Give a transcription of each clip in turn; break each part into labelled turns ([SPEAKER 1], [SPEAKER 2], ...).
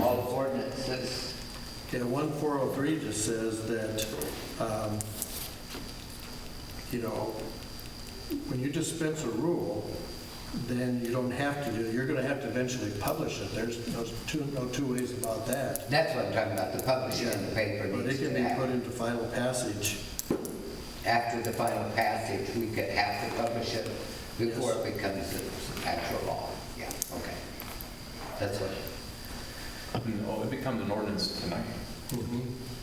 [SPEAKER 1] all ordinances.
[SPEAKER 2] Okay, 1403 just says that, um, you know, when you dispense a rule, then you don't have to do, you're going to have to eventually publish it. There's no two, no two ways about that.
[SPEAKER 1] That's what I'm talking about, the publishing in the paper
[SPEAKER 2] But it
[SPEAKER 1] needs
[SPEAKER 2] can
[SPEAKER 1] to
[SPEAKER 2] be put
[SPEAKER 1] happen.
[SPEAKER 2] into final passage.
[SPEAKER 1] After the final passage, we could have to publish it before it becomes actual law. Yeah, okay. That's what,
[SPEAKER 3] I mean, oh, it becomes an ordinance tonight.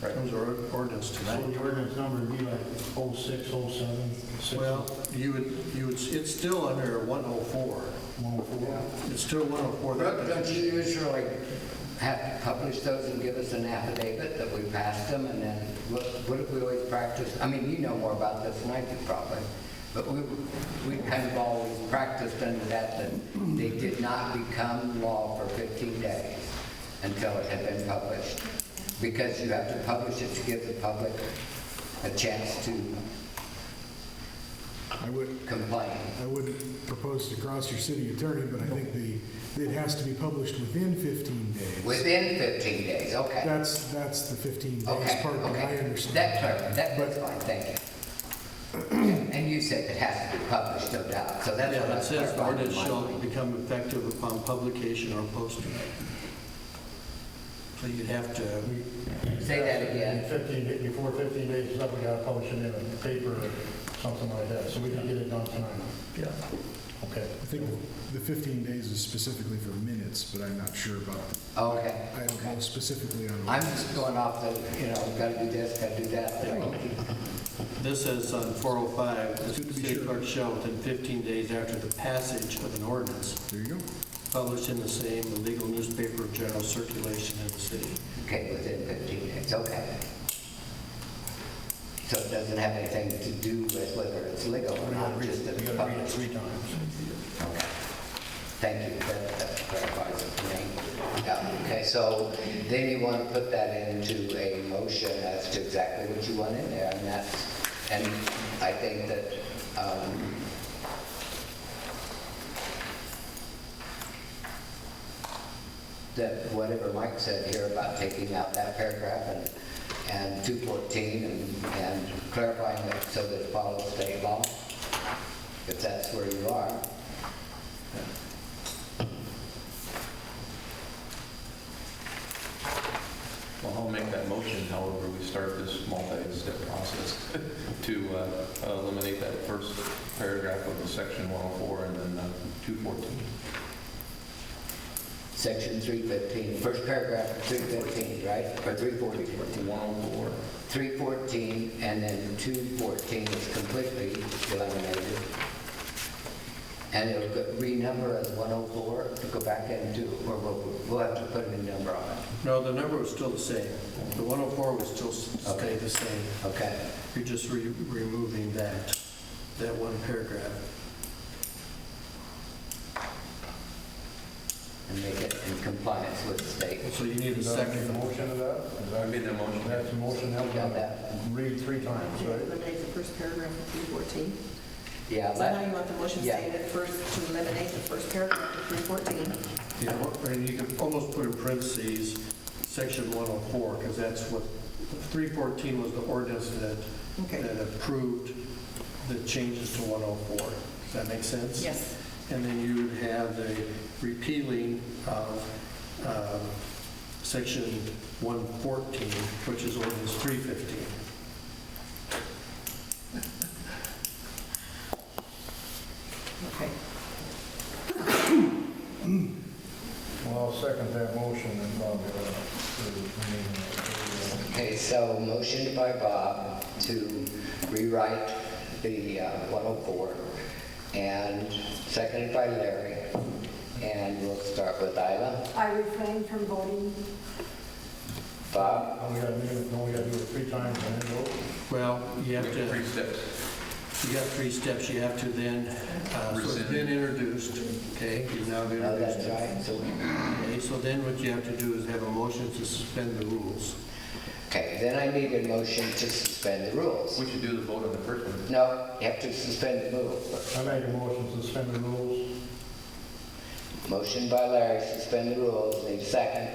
[SPEAKER 3] Right.
[SPEAKER 2] Comes our ordinance
[SPEAKER 4] So
[SPEAKER 2] tonight.
[SPEAKER 4] the ordinance number would be like oh six, oh seven, six, oh
[SPEAKER 2] Well, you would, you would, it's still under 104.
[SPEAKER 4] one four.
[SPEAKER 2] It's still 104.
[SPEAKER 1] Brooke, don't you usually have to publish those and give us an affidavit that we passed them, and then what, what if we always practice? I mean, you know more about this than I do probably, but we, we kind of always practiced under that, that they did not become law for 15 days until it had been published, because you have to publish it to give the public a chance to
[SPEAKER 5] I would,
[SPEAKER 1] complain.
[SPEAKER 5] I wouldn't propose to cross your city attorney, but I think the, it has to be published within 15 days.
[SPEAKER 1] Within 15 days, okay.
[SPEAKER 5] That's, that's the 15 days
[SPEAKER 1] Okay,
[SPEAKER 5] part that I
[SPEAKER 1] okay.
[SPEAKER 5] understand.
[SPEAKER 1] That, clar- that,
[SPEAKER 5] But-
[SPEAKER 1] that's fine, thank you. And you said it has to be published, no doubt, so that's
[SPEAKER 2] Yeah,
[SPEAKER 1] what I
[SPEAKER 2] it says
[SPEAKER 1] clarified in
[SPEAKER 2] ordinance
[SPEAKER 1] my
[SPEAKER 2] shall
[SPEAKER 1] mind.
[SPEAKER 2] become effective upon publication or posting. So you'd have to,
[SPEAKER 1] Say that again.
[SPEAKER 4] Fifteen, da- before fifteen days is up, we gotta publish it in a paper or something like that, so we can get it done tonight.
[SPEAKER 2] yeah,
[SPEAKER 4] Okay.
[SPEAKER 5] I think the 15 days is specifically for minutes, but I'm not sure about,
[SPEAKER 1] Okay.
[SPEAKER 5] I don't know specifically on.
[SPEAKER 1] I'm just going off the, you know, gotta do this, gotta do that.
[SPEAKER 2] this says on 405,
[SPEAKER 5] Good
[SPEAKER 2] the
[SPEAKER 5] to be
[SPEAKER 2] city
[SPEAKER 5] sure.
[SPEAKER 2] clerk shall, within 15 days after the passage of an ordinance,
[SPEAKER 5] There you go.
[SPEAKER 2] publish in the same legal newspaper of general circulation in the city.
[SPEAKER 1] Okay, within 15 days, okay. So it doesn't have anything to do with whether it's legal or
[SPEAKER 4] We gotta
[SPEAKER 1] not,
[SPEAKER 4] read
[SPEAKER 1] just that
[SPEAKER 4] it, we
[SPEAKER 1] it's
[SPEAKER 4] gotta read it
[SPEAKER 1] published.
[SPEAKER 4] three times.
[SPEAKER 1] Okay. Thank you, that that clarifies it for me. Yeah, Okay, so then you want to put that into a motion as to exactly what you want in there, and that's, and I think that, um, that whatever Mike said here about taking out that paragraph and, and 214 and and clarifying it so that it follows state law, if that's where you are.
[SPEAKER 3] Well, I'll make that motion, however, we start this multi-step process to uh, eliminate that first paragraph of the section 104 and then uh, 214.
[SPEAKER 1] Section 315, first paragraph, 315, right? Or 314?
[SPEAKER 3] 104,
[SPEAKER 1] 314, and then 214 is completely eliminated. And it'll go- renumber as 104, to go back into, or we'll, we'll have to put a new number on it,
[SPEAKER 2] No, the number was still the same. The 104 would still s- stay the same.
[SPEAKER 1] okay?
[SPEAKER 2] You're just re- removing that, that one paragraph.
[SPEAKER 1] And make it in compliance with state.
[SPEAKER 2] So you need a
[SPEAKER 4] Is that a
[SPEAKER 2] second.
[SPEAKER 4] motion of that? Is
[SPEAKER 3] I
[SPEAKER 4] that-
[SPEAKER 3] made that motion.
[SPEAKER 4] That's a motion, that we
[SPEAKER 1] Got
[SPEAKER 4] gotta
[SPEAKER 1] that.
[SPEAKER 4] read three times,
[SPEAKER 6] To
[SPEAKER 4] right?
[SPEAKER 6] eliminate the first paragraph of 314.
[SPEAKER 1] Yeah,
[SPEAKER 6] So now you
[SPEAKER 1] that,
[SPEAKER 6] want the motion
[SPEAKER 1] Yeah.
[SPEAKER 6] stated first to eliminate the first paragraph of 314.
[SPEAKER 2] Yeah, or- and you could almost put in parentheses, section 104, because that's what, 314 was the ordinance that,
[SPEAKER 6] Okay.
[SPEAKER 2] that approved the changes to 104. Does that make sense?
[SPEAKER 6] Yes.
[SPEAKER 2] And then you would have the repealing of um, section 114, which is ordinance 315.
[SPEAKER 6] Okay.
[SPEAKER 4] Well, I'll second that motion and Bob, uh, to rename it.
[SPEAKER 1] okay, so motion by Bob to rewrite the uh, 104, and seconded by Larry, and we'll start with Isla.
[SPEAKER 7] I refrain from voting.
[SPEAKER 1] Bob?
[SPEAKER 4] Now we gotta do it, now we gotta do it three times and then vote.
[SPEAKER 2] Well, you have to,
[SPEAKER 3] three steps.
[SPEAKER 2] you got three steps. You have to then, uh, so it's
[SPEAKER 3] Rescind.
[SPEAKER 2] been introduced, okay? You've now
[SPEAKER 1] No,
[SPEAKER 2] introduced
[SPEAKER 1] Oh, that's
[SPEAKER 2] it.
[SPEAKER 1] right. So,
[SPEAKER 2] Okay, so then what you have to do is have a motion to suspend the rules.
[SPEAKER 1] okay, then I need a motion to suspend the rules.
[SPEAKER 3] We should do the vote on the first one.
[SPEAKER 1] No, you have to suspend the rules.
[SPEAKER 4] I make a motion to suspend the rules.
[SPEAKER 1] Motion by Larry, suspend the rules, need a second.